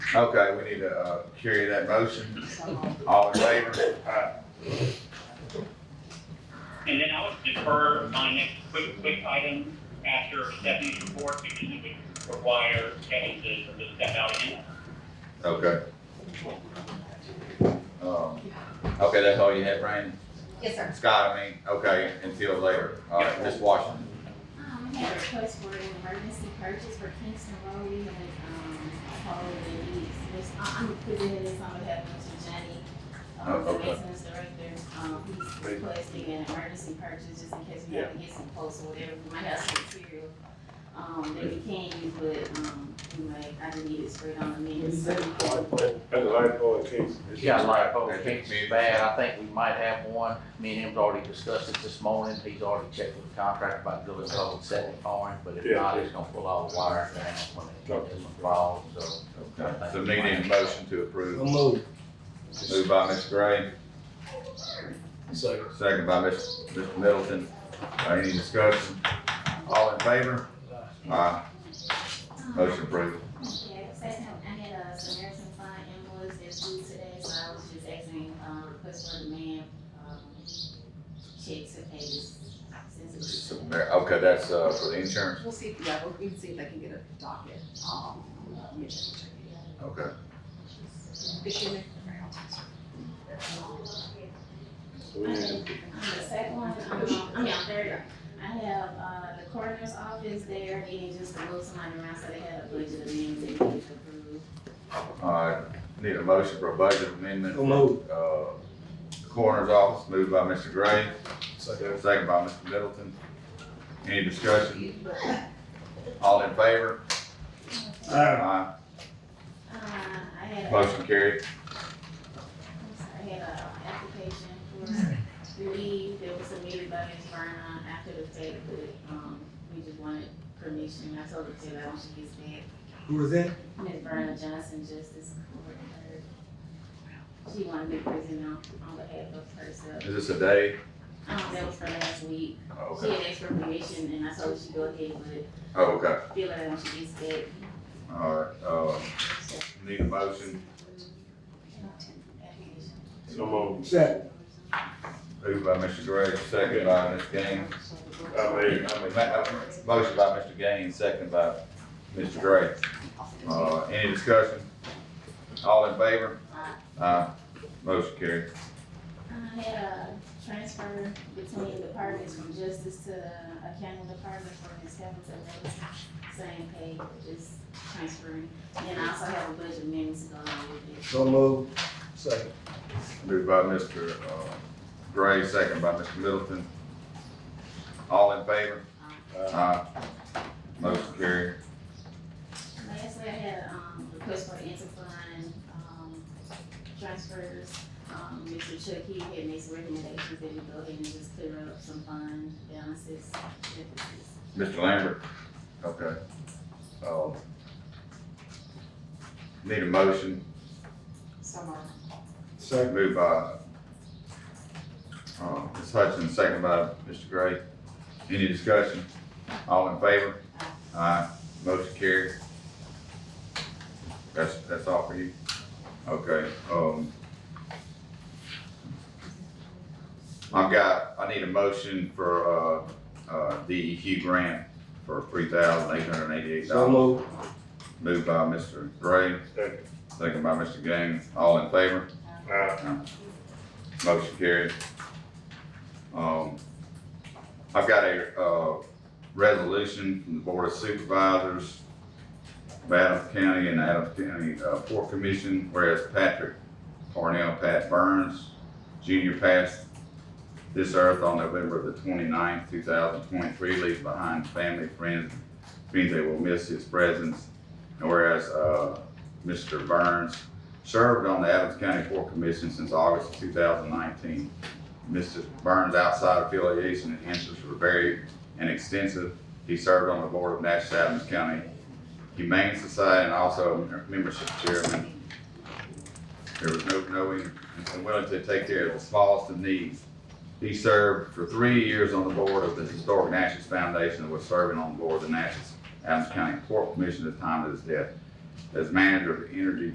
Okay, we need to, uh, carry that motion. Um, All in favor? Aye. And then I would defer my next quick, quick item after Stephanie's report because it would require Kevin to, to step out again. Okay. Um, okay, that's all you had, Brandon? Yes, sir. Scott, I mean, okay, until later. All right, Ms. Washington. Um, I had a request for an emergency purchase for Kingston Road, we had, um, called the needs. This- I- I'm presenting this on behalf of Mr. Jenny, um, Oh, the okay. maintenance director. Um, he's requesting an emergency purchase just in case we have to get some quotes or whatever, we might have some material, um, that we can use, but, um, we might, I just need it straight on the Um, minutes. That's a light bulb case. Yeah, like, I oh, think it's maybe- bad, I think we might have one, me and him's already discussed it this morning, he's already checked with the contractor about building a whole set of flooring, but if Yeah, not, yeah. it's gonna pull all the wires down when it, when it falls, so. Okay, so needing a motion to approve. move. Moved by Ms. Gray, Second. second by Ms. Mr. Middleton. Uh, Any discussion? All in favor? Aye. Motion approved. Yeah, second, I had a Samaritan Fund invoice that's due today, so I was just asking, um, request for demand, um, checks and pages. since it's- Okay, that's, uh, for the insurance. We'll see, if- yeah, we'll, we can see if I can get a docket, um, let me check, check. Okay. Is she in there? And The second one, um, I mean, I'm there, I have, uh, the coroner's office there, needing just to move somebody around, so they had a budget amendment they needed to approve. All right, need a motion for a budget amendment. So moved. Uh, Coroner's office, moved by Mr. Gray, Second. second by Mr. Middleton. Any discussion? All in favor? Aye. Uh, I had. a- Motion carried. I had an application for leave that was submitted by Ms. Vernon after the fact, but, um, we just wanted permission, I told her to, that when she gets back. Who was that? Ms. Vernon Johnson, Justice Court, her, she wanted me present on, on behalf of herself. Is this a day? Oh, Um, that was for last week, she Okay. had asked for permission, and I told her she go ahead, but Oh, okay. feel like when she gets back, All right, uh, need a motion, application. So move. Second. moved by Mr. Gray, second by Ms. Gaines. I made, I I mean, made. ma- uh, Motion by Mr. Gaines, second by Mr. Gray. Uh, any discussion? All in favor? Aye. Motion carried. I had a transfer between departments from justice to accounting department for Ms. Hamilton, that was same pay, just transferring. And I also have a budget amendment to go along with it. So moved. Second. Moved by Mr. uh, Gray, second by Mr. Middleton. All in favor? Aye. Motion carried. Lastly, I had, um, request for interfund, um, transfers. Um, Mr. Chuck, he had made some recommendations that we go ahead and just clear up some fund balances, deficits. Mr. Lambert? Okay. Um, Need a motion, Summer. Second. moved by uh, Ms. Hutchins, second by Mr. Gray. Any discussion? All in favor? Aye. Motion carried. That's, that's all for you? Okay, um. I've got, I need a motion for, uh, uh, DEQ grant for three thousand eight hundred and eighty-eight So dollars. moved. Moved by Mr. Gray, Second. second by Mr. Gaines, all in favor? Aye. Motion carried. Um, I've got a, uh, resolution from the Board of Supervisors of Adams County and Adams County, uh, Port Commission, whereas Patrick Parnell Pat Burns Junior passed this earth on November the 29th, thousand twenty-three, leaving behind family, friends, means they will miss his presence. And whereas, uh, Mr. Burns served on the Adams County Board Commission since August of 2019. Mr. Burns' outside affiliation and interests were varied and extensive. He served on the board of Natchez Adams County Humane Society and also a membership chairman. There was no knowing and willing to take care of the smallest of needs. He served for three years on the board of the Historic Natchez Foundation and was serving on the board of the Natchez Adams County Port Commission at the time of his death. As manager of the Energy